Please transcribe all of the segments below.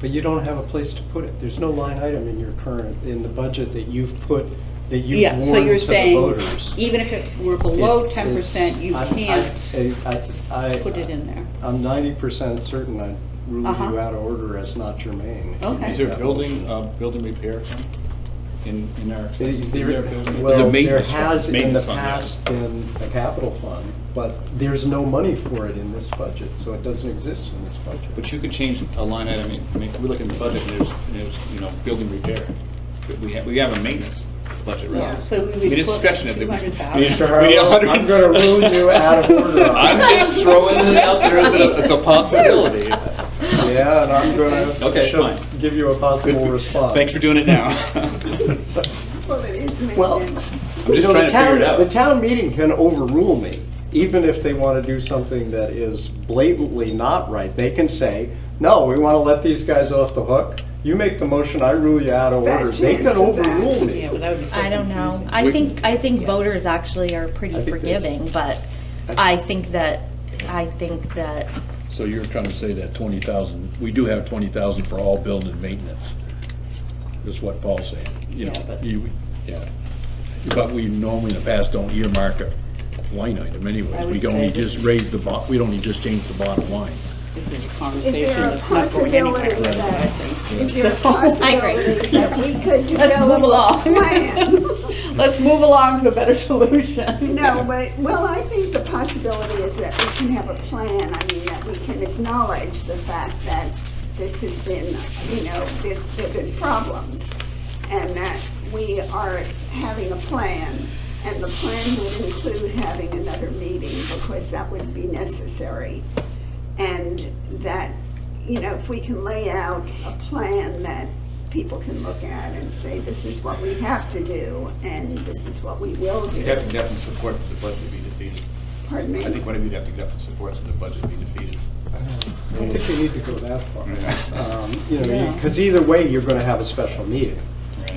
but you don't have a place to put it. There's no line item in your current, in the budget that you've put, that you've Yeah, warned so to you're the saying, voters. even if it were below It- ten percent, it's- you I'm- I- can't I- I- put it in there. I'm ninety percent certain I ruled Uh-huh. you out of order as not germane. Okay. Is there a building, uh, building repair fund in, in our? There- is there a building- Well, there maintenance fund. has in the Maintenance fund, yeah. past been a capital fund, but there's no money for it in this budget, so it doesn't exist in this budget. But you could change a line item, I mean, we look at the budget, and there's, and there's, you know, building repair. But We have, we have a maintenance budget, Yeah, right? so we would I mean, it's put discretionary. We- we- $200,000. we- we- we- I'm gonna ruin you out of order. I'm just throwing it out there as a, it's a possibility. Yeah, and I'm gonna, Okay, she'll fine. give you a Good possible for- response. Thanks for doing it now. Well, it is Well, maintenance. I'm You just know, trying the to figure town, it the out. town meeting can overrule me, even if they want to do something that is blatantly not right. They can say, no, we want to let these guys off the hook. You make the motion, I rule you out of That order. They chance can of overrule that. me. Yeah, but that would be so I don't know. confusing. I We- think, I think Yeah. voters actually are I pretty think they- forgiving, but I think that, I think that, So you're trying to say that twenty thousand, we do have twenty thousand for all building maintenance, is what Paul's saying, you Yeah, know, but- you, yeah. But we normally in the past don't earmark a line item I anyways, would we can only say this- just raise the bo, we don't only just change the bottom line. This is a Is conversation there a that's not going anywhere. possibility that, is there a So- I possibility that we Let's could develop move a along. plan? Let's move along to a better solution. No, but, well, I think the possibility is that we can have a plan, I mean, that we can acknowledge the fact that this has been, you know, there's there've been problems, and that we are having a plan, and the plan would include having another meeting, because that would be necessary. And that, you know, if we can lay out a plan that people can look at and say, this is what we have to do, and this is what we will do. You'd have to definitely support the budget be defeated. Pardon me? I think one of you'd have to definitely support the budget be defeated. I don't think we need to go that far. Yeah. Um, You know, Yeah. because either way, you're going to have a special meeting.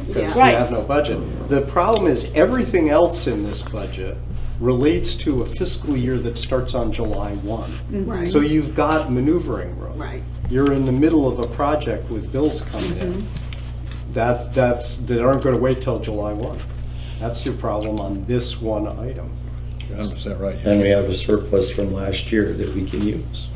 because we Yeah, Right. have no budget. The problem is, everything else in this budget relates to a fiscal year that starts on July 1. Right. So you've got maneuvering room. Right. You're in the middle of a project with bills coming in Mm-hmm. that, that's, that aren't going to wait till July 1. That's your problem on this one item. Hundred percent right. And we have a surplus from last year that we can use.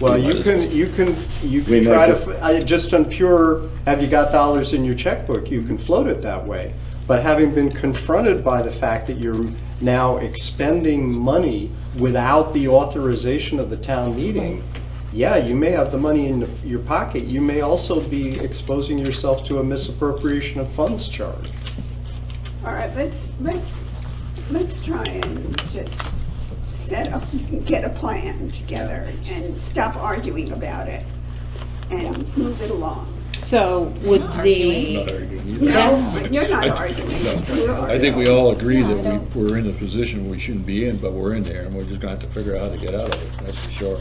Well, We might you as can, well. you can, you We can try to, might f- I- just on pure, have you got dollars in your checkbook, you can float it that way. But having been confronted by the fact that you're now expending money without the authorization of the town meeting, yeah, you may have the money in your pocket, you may also be exposing yourself to a misappropriation of funds charge. all right, let's, let's, let's try and just set up, get a plan together and stop arguing about it and move it along. So would Not the, arguing either. No, you're not No. arguing. I think we all agree that we, we're in a position we shouldn't be in, but we're in there, and we're just gonna have to figure out how to get out of it, that's for sure.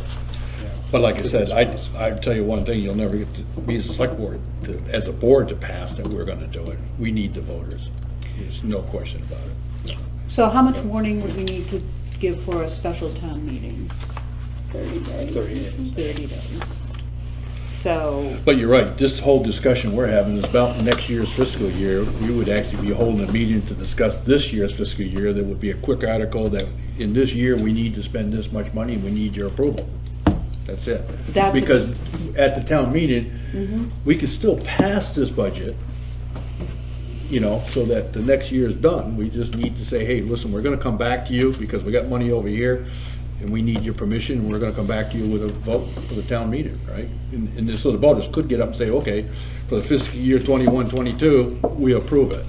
But like I said, I, I tell you one thing, you'll never get to be as a select board, to- as a board to pass that we're gonna do it. We need the voters, there's no question about it. so how much warning would we need to give for a special town meeting? Thirty days. Thirty days. So, But you're right, this whole discussion we're having is about next year's fiscal year. You would actually be holding a meeting to discuss this year's fiscal year, there would be a quick article that, in this year, we need to spend this much money, we need your approval. That's it. That's- Because at the town meeting, we could still pass this budget, you know, so that the next year is done. We just need to say, hey, listen, we're gonna come back to you because we got money over here and we need your permission. and We're gonna come back to you with a vote for the town meeting, right? And, and then so the voters could get up and say, okay, for the fiscal year twenty-one, twenty-two, we approve it.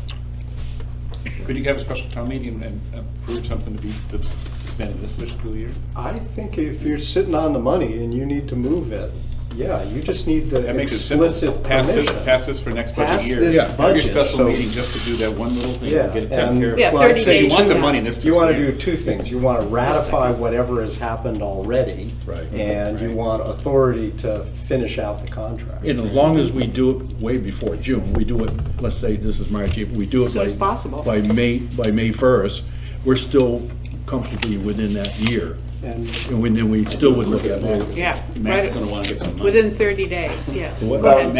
Could you have a special town meeting and approve something to be, to to spend in this fiscal year? I think if you're sitting on the money and you need to move it, yeah, you just need the That makes it simple. explicit Pass this, permission. pass this for next budget Pass year. this Yeah. Have budget, your special so- meeting just to do that one little thing, Yeah, and get it and- taken care of. Yeah, well, I'd 30 say days You want the from now. money in this You fiscal want year. to do two things. You want to ratify whatever has happened already. Right. And you Right. want authority to finish out the contract. And as long as we do it way before June, we do it, let's say this is March, if we do it Soon by. as possible. By May, by May first, we're still comfortably within that year. and and then we still would look at it. Matt's Yeah, Matt's right. gonna wanna get some money. Within 30 days, yeah. What- Go ahead.